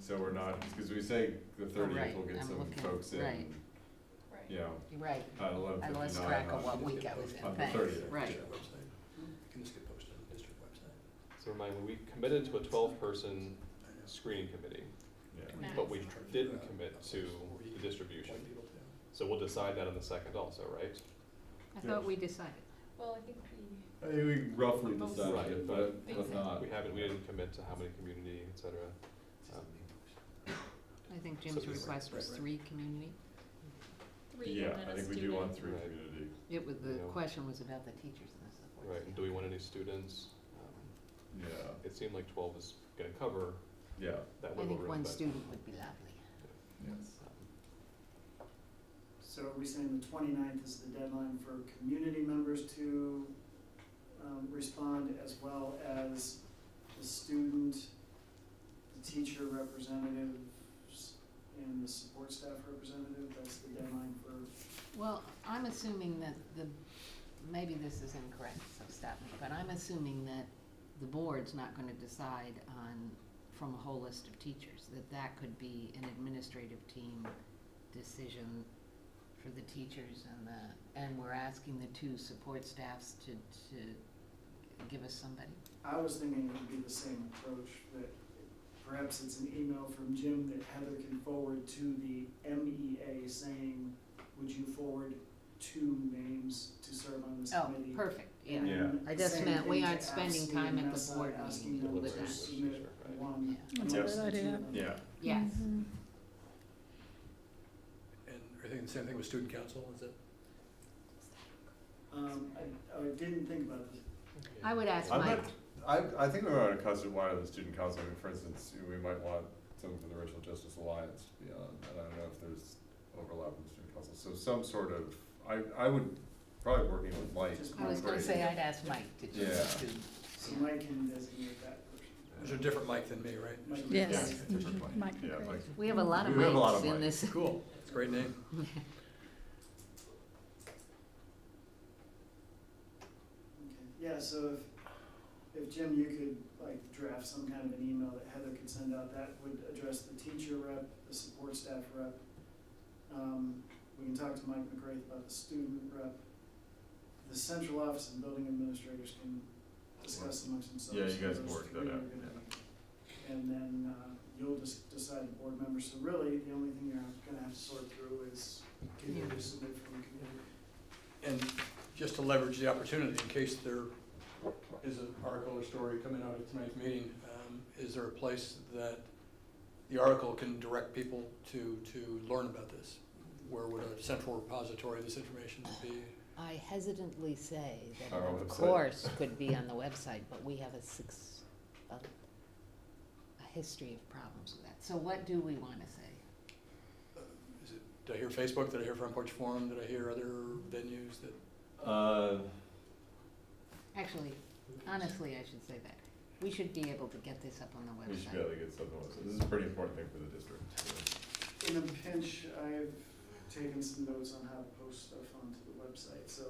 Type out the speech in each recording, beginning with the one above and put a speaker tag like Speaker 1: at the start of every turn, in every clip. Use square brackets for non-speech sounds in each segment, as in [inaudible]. Speaker 1: so we're not, because we say the thirtieth
Speaker 2: Oh, right,
Speaker 1: will get
Speaker 2: I'm
Speaker 1: some
Speaker 2: looking,
Speaker 1: folks in,
Speaker 2: right.
Speaker 1: you know,
Speaker 2: Right,
Speaker 1: at eleven
Speaker 2: I
Speaker 1: fifty-nine on.
Speaker 2: lost track of what week I was in,
Speaker 1: on the
Speaker 2: thanks,
Speaker 1: 30th.
Speaker 2: right.
Speaker 3: Can this get posted on the district website?
Speaker 4: So remind me, we committed to a twelve-person screening committee,
Speaker 1: Yeah,
Speaker 2: Right.
Speaker 4: but we didn't commit to the distribution. So we'll decide that on the second also, right?
Speaker 5: I
Speaker 1: Yeah.
Speaker 5: thought we decided.
Speaker 6: Well, I think we,
Speaker 1: I think we roughly
Speaker 6: Both.
Speaker 1: decided, it, but,
Speaker 6: Right,
Speaker 1: but
Speaker 6: but-
Speaker 1: not.
Speaker 4: We haven't, we didn't commit to how many community, et cetera. Um,
Speaker 5: I think
Speaker 4: So
Speaker 5: Jim's
Speaker 4: this-
Speaker 5: request was
Speaker 3: right, right.
Speaker 5: three community.
Speaker 6: three
Speaker 1: Yeah,
Speaker 6: and then
Speaker 1: I
Speaker 6: a
Speaker 1: think we do want
Speaker 6: student.
Speaker 1: three
Speaker 4: Right.
Speaker 1: community.
Speaker 5: It was, the
Speaker 4: Yeah.
Speaker 5: question was about the teachers and the support
Speaker 4: Right, and do we want any students? Um,
Speaker 1: Yeah,
Speaker 4: It seemed like twelve is gonna cover
Speaker 1: yeah,
Speaker 4: that
Speaker 5: I
Speaker 4: wiggle
Speaker 5: think
Speaker 4: room,
Speaker 5: one
Speaker 4: but.
Speaker 5: student would be lovely.
Speaker 1: yes.
Speaker 7: So are we saying the 29th is the deadline for community members to um, respond as well as the student, the teacher representatives, and the support staff representative? That's the deadline for,
Speaker 5: Well, I'm assuming that the, maybe this is incorrect, so stop me, but I'm assuming that the board's not gonna decide on, from a whole list of teachers, that that could be an administrative team decision for the teachers and the, and we're asking the two support staffs to, to give us somebody.
Speaker 7: I was thinking it would be the same approach, that perhaps it's an email from Jim that Heather can forward to the MEA saying, would you forward two names to serve on this
Speaker 5: Oh,
Speaker 7: committee?
Speaker 5: perfect, yeah.
Speaker 1: Yeah.
Speaker 7: And
Speaker 5: I just
Speaker 7: same
Speaker 5: meant we
Speaker 7: thing to
Speaker 5: aren't spending
Speaker 7: ask
Speaker 5: time at the
Speaker 7: CMS,
Speaker 5: board
Speaker 7: asking
Speaker 5: meeting
Speaker 7: them
Speaker 5: with
Speaker 7: to
Speaker 5: that.
Speaker 7: submit one.
Speaker 5: Yeah.
Speaker 1: That's a
Speaker 7: amongst
Speaker 2: good
Speaker 7: the two
Speaker 2: idea.
Speaker 7: of them.
Speaker 1: Yeah,
Speaker 5: Yes,
Speaker 6: Mm-hmm.
Speaker 3: And are you thinking the same thing with student council, is it?
Speaker 7: Um, I, I didn't think about this.
Speaker 5: I would ask
Speaker 1: I'm
Speaker 5: Mike,
Speaker 1: not, I, I think we are on a custom wire of the student council, I mean, for instance, we might want something for the Racial Justice Alliance to be on, and I don't know if there's overlap with the student council, so some sort of, I, I would, probably working with Mike.
Speaker 7: Just
Speaker 5: I was gonna
Speaker 1: Right.
Speaker 5: say I'd ask Mike to
Speaker 1: Yeah,
Speaker 5: just,
Speaker 7: So Mike can designate that person.
Speaker 3: There's a different Mike than me, right?
Speaker 7: Mike can
Speaker 2: Yes.
Speaker 7: designate
Speaker 1: different Mike, yeah, Mike,
Speaker 5: we have a lot of
Speaker 1: We have a lot of
Speaker 5: Mikes in
Speaker 1: Mikes.
Speaker 5: this.
Speaker 3: Cool, it's a great name.
Speaker 5: [laughs]
Speaker 7: Okay. Yeah, so if, if Jim, you could like draft some kind of an email that Heather could send out, that would address the teacher rep, the support staff rep. Um, we can talk to Mike McGrath about the student rep. The central office and building administrators can discuss amongst themselves.
Speaker 1: Yeah, you guys
Speaker 7: who
Speaker 1: can
Speaker 7: those
Speaker 1: work that
Speaker 7: three are
Speaker 1: out,
Speaker 7: gonna be. And then, uh, you'll just decide the board members, so really, the only thing you're gonna have to sort through is can you
Speaker 5: Yeah.
Speaker 7: submit from the community?
Speaker 3: And just to leverage the opportunity, in case there is an article or story coming out at tonight's meeting, um, is there a place that the article can direct people to, to learn about this? Where would a central repository of this information be?
Speaker 5: I hesitantly say that
Speaker 1: Our
Speaker 5: it
Speaker 1: own
Speaker 5: of
Speaker 1: website.
Speaker 5: course could be on the website, but we have a six, a, a history of problems with that. So what do we wanna say?
Speaker 3: Is it, did I hear Facebook, did I hear Front Porch Forum, did I hear other venues that?
Speaker 1: uh,
Speaker 5: Actually, honestly, I should say that. We should be able to get this up on the
Speaker 1: we should be able
Speaker 5: website.
Speaker 1: to get something, else. this is a pretty important thing for the district,
Speaker 7: in a pinch, I've taken some notes on how to post stuff onto the website, so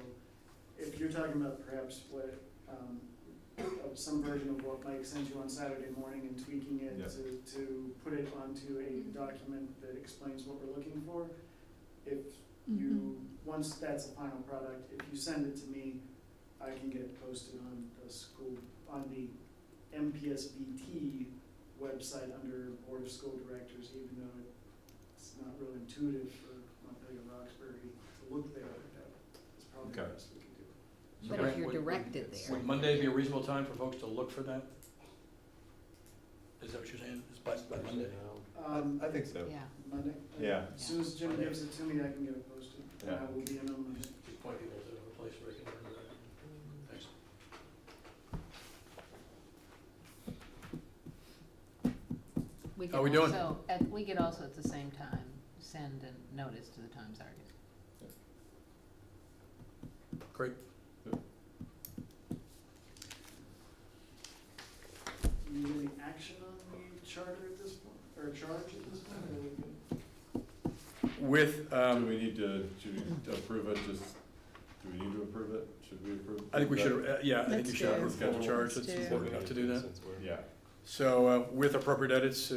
Speaker 7: if you're talking about perhaps what, um, of some version of what Mike sent you on Saturday morning and tweaking it
Speaker 1: Yeah.
Speaker 7: to, to put it onto a document that explains what we're looking for, if you, once that's a final product, if you send it to me, I can get it posted on the school, on the MPSBT website under Board of School Directors, even though it's not real intuitive for Montpelier Roxbury to look there. That is probably the
Speaker 1: Okay.
Speaker 7: best we can do.
Speaker 5: But if
Speaker 3: Right,
Speaker 5: you're
Speaker 3: would- would-
Speaker 5: directed there,
Speaker 3: Would Monday be a reasonable time for folks to look for that? Is that what you're saying, is by, by Monday?
Speaker 7: Um,
Speaker 1: I think so.
Speaker 5: yeah.
Speaker 7: Monday?
Speaker 1: Yeah.
Speaker 7: As soon as Jim gives it to me, I can get it posted, and I
Speaker 1: Yeah.
Speaker 7: will be in on Monday.
Speaker 3: Just point people to a place where they can learn about it. Thanks.
Speaker 5: We
Speaker 3: How we
Speaker 5: could
Speaker 3: doing?
Speaker 5: also, at, we could also at the same time send a notice to the Times Argus.
Speaker 3: Great.
Speaker 7: Do you need any action on the charter at this point, or charge at this point, or are we good?
Speaker 3: With,
Speaker 1: Um, do
Speaker 3: um,
Speaker 1: we need to, should we approve it, just, do we need to approve it, should we approve?
Speaker 3: I think we
Speaker 1: that?
Speaker 3: should, uh, yeah, I think
Speaker 2: Let's
Speaker 3: you should have
Speaker 1: do
Speaker 3: a
Speaker 1: it.
Speaker 3: formal
Speaker 2: Let's
Speaker 3: charge, it's
Speaker 2: do it.
Speaker 3: important enough to do that.
Speaker 4: Since we're-
Speaker 1: Yeah.
Speaker 3: So uh, with appropriate edits,